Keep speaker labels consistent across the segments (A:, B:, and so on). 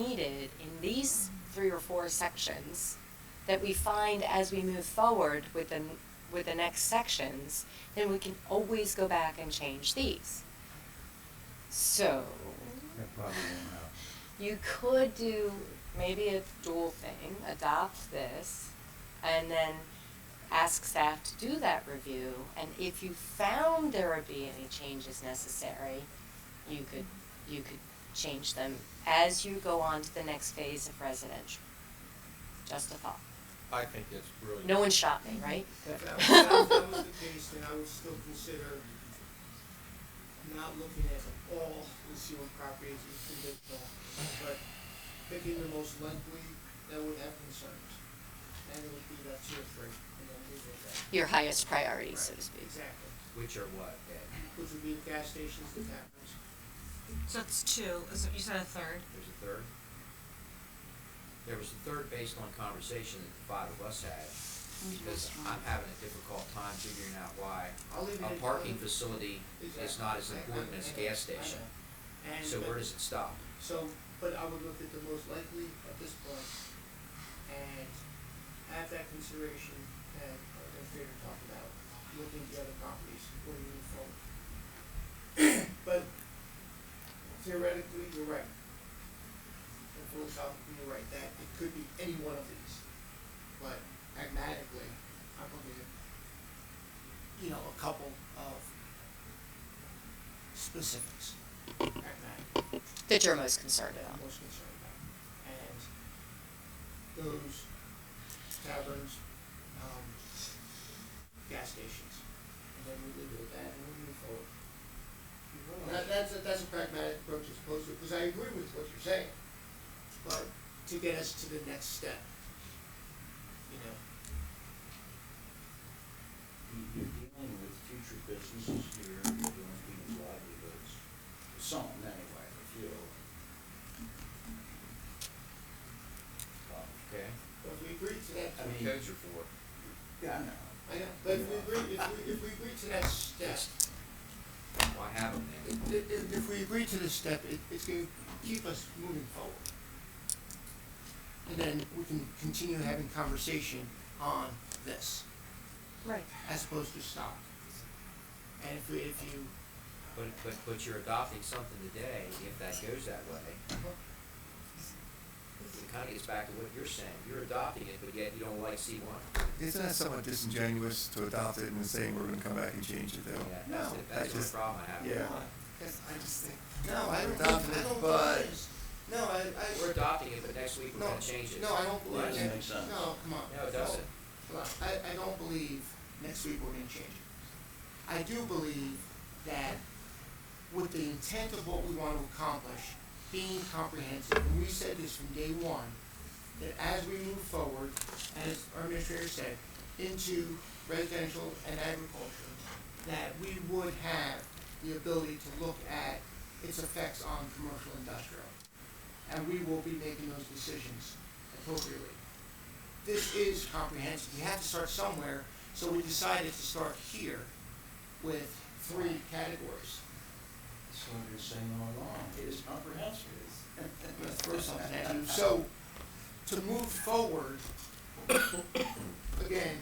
A: needed in these three or four sections that we find as we move forward with the, with the next sections, then we can always go back and change these. So,
B: That probably won't happen.
A: you could do maybe a dual thing, adopt this, and then ask staff to do that review, and if you found there would be any changes necessary, you could, you could change them as you go on to the next phase of residential. Just a thought.
C: I think that's brilliant.
A: No one shot me, right?
D: If that was, if that was the case, then I would still consider not looking at all concealed properties as conditional, but picking the most likely that would have concerns. And it would be that two or three, and then leave it at that.
A: Your highest priority, so to
D: Right,
A: speak.
D: Exactly,
C: Which are what, Ed?
D: which would be gas stations, the taverns.
E: So it's two, is it, you said a third?
C: There's a third? There was a third based on conversation that the five of us had, because I'm having a difficult time figuring out why
D: I'll leave it
C: a
D: at-
C: parking facility is
D: Exactly.
C: not as
D: I- I-
C: important as a
D: I know,
C: gas
D: I know.
C: station.
D: And,
C: So
D: but-
C: where does it stop?
D: So, but I would look at the most likely at this point and have that consideration that uh, the fair to talk about, looking at the other properties before you move forward. But theoretically, you're right. And philosophically, you're right, that it could be any one of these. But pragmatically, I'm looking at, you know, a couple of specifics, pragmatically
A: That you're most concerned
D: that I'm
A: about.
D: most concerned about. And those taverns, um, gas stations, and then we leave it at that and we move forward. That, that's, a- that's a pragmatic approach as opposed to, because I agree with what you're saying, but to get us to the next step, you know,
F: You- You're dealing with future businesses here, you're dealing with people's livelihoods, some anyway, a few. Um,
C: Okay?
D: but if we agree to that,
F: I mean-
C: Codes are for.
F: Yeah, I know.
D: I know, but if we agree, if we, if we agree to that step,
C: Why have them then?
D: If, if, if we agree to this step, it, it's gonna keep us moving forward. And then we can continue having conversation on this,
A: Right.
D: as opposed to stop. And if we, if you,
C: But, but, but you're adopting something today, if that goes that way. It kind of gets back to what you're saying. You're adopting it, but yet you don't like C one.
B: Isn't that somewhat disingenuous to adopt it and then saying we're gonna come back and change it
C: Yeah,
B: though?
C: that's,
D: No,
C: the-
B: I
C: that's the
B: just-
C: problem I have. with it.
B: Yeah.
D: Yes, I just think, no, I don't, I don't
B: Adopt
D: think
B: it,
D: it
B: but-
D: is. No, I,
C: We're
D: I,
C: adopting it, but next week we're
D: no,
C: gonna change it.
D: no, I don't
C: Why
D: believe
C: does
F: Doesn't
D: that,
F: make sense.
D: no, come on.
C: No, it doesn't.
D: Well, I, I don't believe next week we're gonna change it. I do believe that with the intent of what we want to accomplish, being comprehensive, and we said this from day one, that as we move forward, as our administrator said, into residential and agriculture, that we would have the ability to look at its effects on commercial industrial. And we will be making those decisions appropriately this is comprehensive. We have to start somewhere, so we decided to start here with three categories.
F: That's what you're saying all along, it is comprehensive.
D: I'm gonna throw something at you. So, to move forward, again,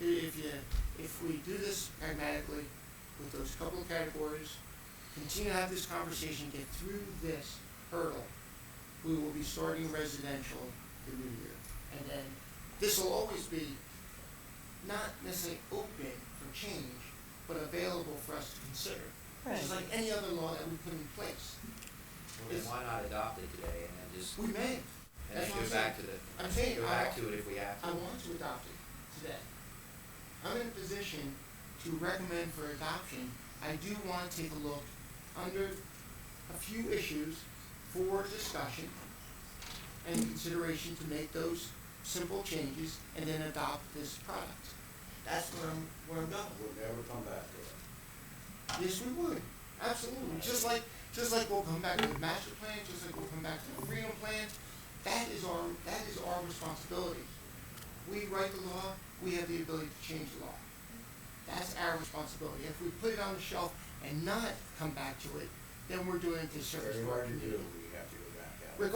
D: i- if you, if we do this pragmatically with those couple of categories, continue to have this conversation, get through this hurdle, we will be starting residential the new year. And then, this will always be not necessarily open for change, but available for us to consider. Just like any other law that we put in place.
C: Well, then why not adopt it today and then just,
D: We may,
C: and then
D: That's what
C: go
D: I'm
C: back to
D: saying.
C: the,
D: I'm saying
C: go
D: I-
C: back to it if we have to?
D: I want to adopt it today. I'm in a position to recommend for adoption. I do want to take a look under a few issues for discussion and consideration to make those simple changes and then adopt this product. That's where I'm, where I'm going.
F: We'll never come back to it.
D: Yes, we would. Absolutely. Just like, just like we'll come back to the master plan, just like we'll come back to the freedom plan. That is our, that is our responsibility. We write the law, we have the ability to change the law. That's our responsibility. If we put it on the shelf and not come back to it, then we're doing a disservice
F: Very
D: to our
F: hard to do,
D: community.
F: we